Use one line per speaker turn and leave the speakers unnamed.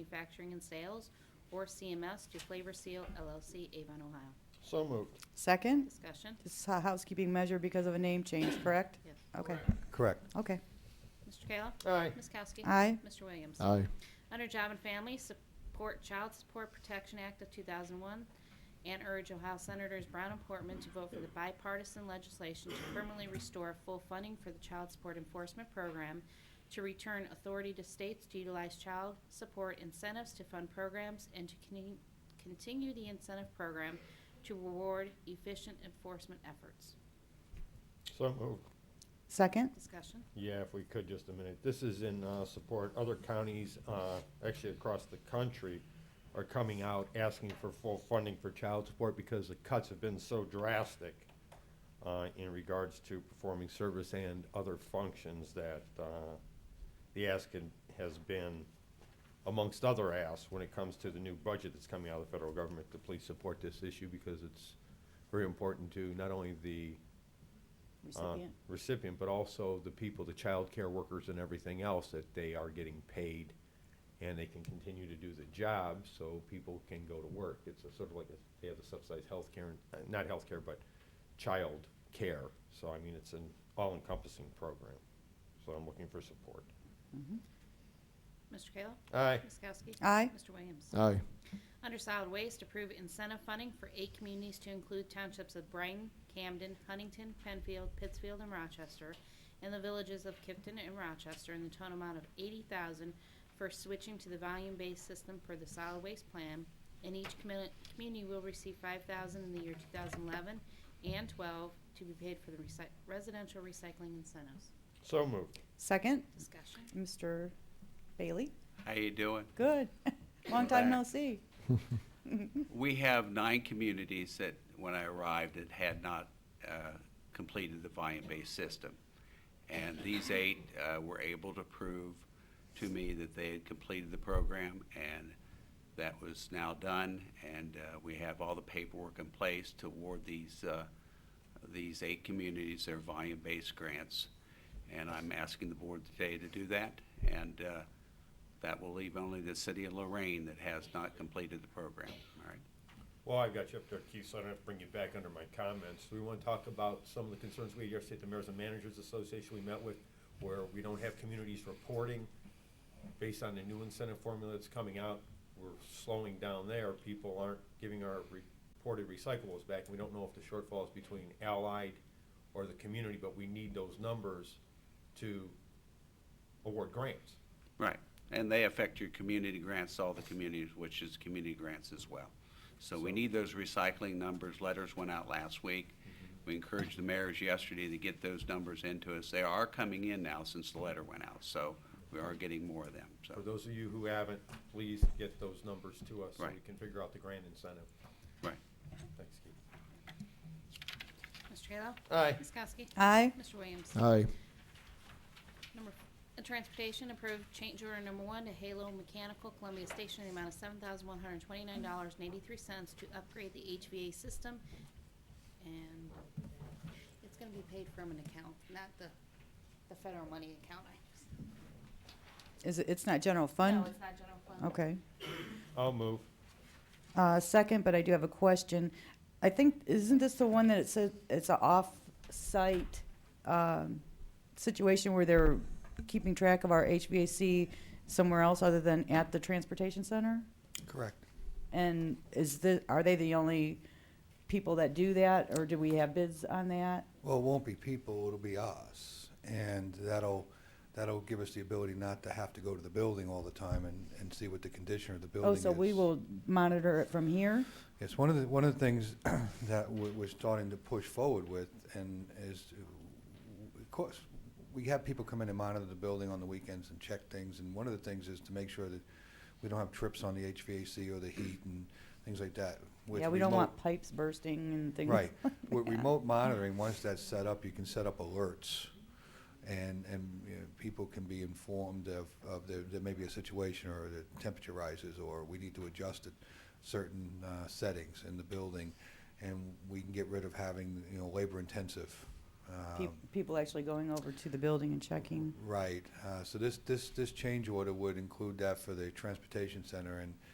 Manufacturing and Sales, or CMS, to Flavor Seal LLC, Avon, Ohio.
So moved.
Second,
Discussion.
this is a housekeeping measure because of a name change, correct?
Yes.
Okay,
Correct.
okay.
Mr. Kayla?
Aye.
Ms. Kowski?
Aye.
Mr. Williams?
Aye.
Under Job and Family Support Child Support Protection Act of 2001, and urge Ohio Senators Brown and Portman to vote for the bipartisan legislation to permanently restore full funding for the Child Support Enforcement Program, to return authority to states to utilize child support incentives to fund programs, and to con- continue the incentive program to reward efficient enforcement efforts.
So moved.
Second,
Discussion?
Yeah, if we could, just a minute. This is in uh, support, other counties, uh, actually across the country, are coming out asking for full funding for child support because the cuts have been so drastic uh, in regards to performing service and other functions that uh, the ask can- has been, amongst other asks, when it comes to the new budget that's coming out of the federal government, to please support this issue because it's very important to not only the uh,
recipient.
recipient, but also the people, the child care workers and everything else, that they are getting paid and they can continue to do the job so people can go to work. It's a sort of like, a- they have the subsidized healthcare, and- uh, not healthcare, but child care. So I mean, it's an all-encompassing program. So I'm looking for support.
Mm-hmm.
Mr. Kayla?
Aye.
Ms. Kowski?
Aye.
Mr. Williams?
Aye.
Under solid waste, approve incentive funding for eight communities to include townships of Brighton, Camden, Huntington, Penfield, Pittsfield, and Rochester, and the villages of Kipton and Rochester in the total amount of eighty thousand for switching to the volume-based system per the solid waste plan, and each commu- community will receive five thousand in the year two thousand eleven and twelve to be paid for the recy- residential recycling incentives.
So moved.
Second,
Discussion.
Mr. Bailey?
How you doing?
Good. Long time no
Back.
see.
We have nine communities that, when I arrived, that had not uh, completed the volume-based system. And these eight uh, were able to prove to me that they had completed the program, and that was now done. And uh, we have all the paperwork in place to award these, uh, these eight communities their volume-based grants. And I'm asking the board today to do that, and uh, that will leave only the city of Lorraine that has not completed the program, all right?
Well, I've got you up there, Keith, so I don't have to bring you back under my comments. We want to talk about some of the concerns we had yesterday at the Mayors and Managers Association we met with, where we don't have communities reporting based on the new incentive formula that's coming out. We're slowing down there. People aren't giving our reported recyclables back. We don't know if the shortfall is between Allied or the community, but we need those numbers to award grants.
Right, and they affect your community grants, all the communities, which is community grants as well. So we need those recycling numbers, letters went out last week. We encouraged the mayors yesterday to get those numbers into us. They are coming in now since the letter went out, so we are getting more of them,
For
so,
those of you who haven't, please get those numbers to us so we
Right.
can figure out the grant incentive.
right.
Thanks, Keith.
Mr. Kayla?
Aye.
Ms. Kowski?
Aye.
Mr. Williams?
Aye,
Number, uh, Transportation approved change order number one to Halo Mechanical Columbia Station in the amount of seven thousand one hundred twenty-nine dollars and eighty-three cents to upgrade the HVA system. And it's gonna be paid from an account, not the, the federal money account. I-
Is it, it's not general fund?
No, it's not general fund.
Okay.
I'll move.
Uh, second, but I do have a question. I think, isn't this the one that it says, it's an off-site, um, situation where they're keeping track of our HVAC somewhere else other than at the transportation center?
correct.
And is the, are they the only people that do that, or do we have bids on that?
Well, it won't be people, it'll be us. And that'll, that'll give us the ability not to have to go to the building all the time and, and see what the condition of the building
Oh,
is.
so we will monitor it from here?
Yes, one of the, one of the things that w- we're starting to push forward with and is, to- of course, we have people come in and monitor the building on the weekends and check things. And one of the things is to make sure that we don't have trips on the HVAC or the heat and things like that. with
Yeah, we don't
remote-
want pipes bursting and things.
Right. With
Yeah.
remote monitoring, once that's set up, you can set up alerts, and, and, you know, people can be informed of, of there, there may be a situation, or the temperature rises, or we need to adjust at certain, uh, settings in the building, and we can get rid of having, you know, labor-intensive, uh,
Pe-
Um,
People actually going over to the building and checking.
Right, uh, so this, this, this change order would include that for the transportation center, and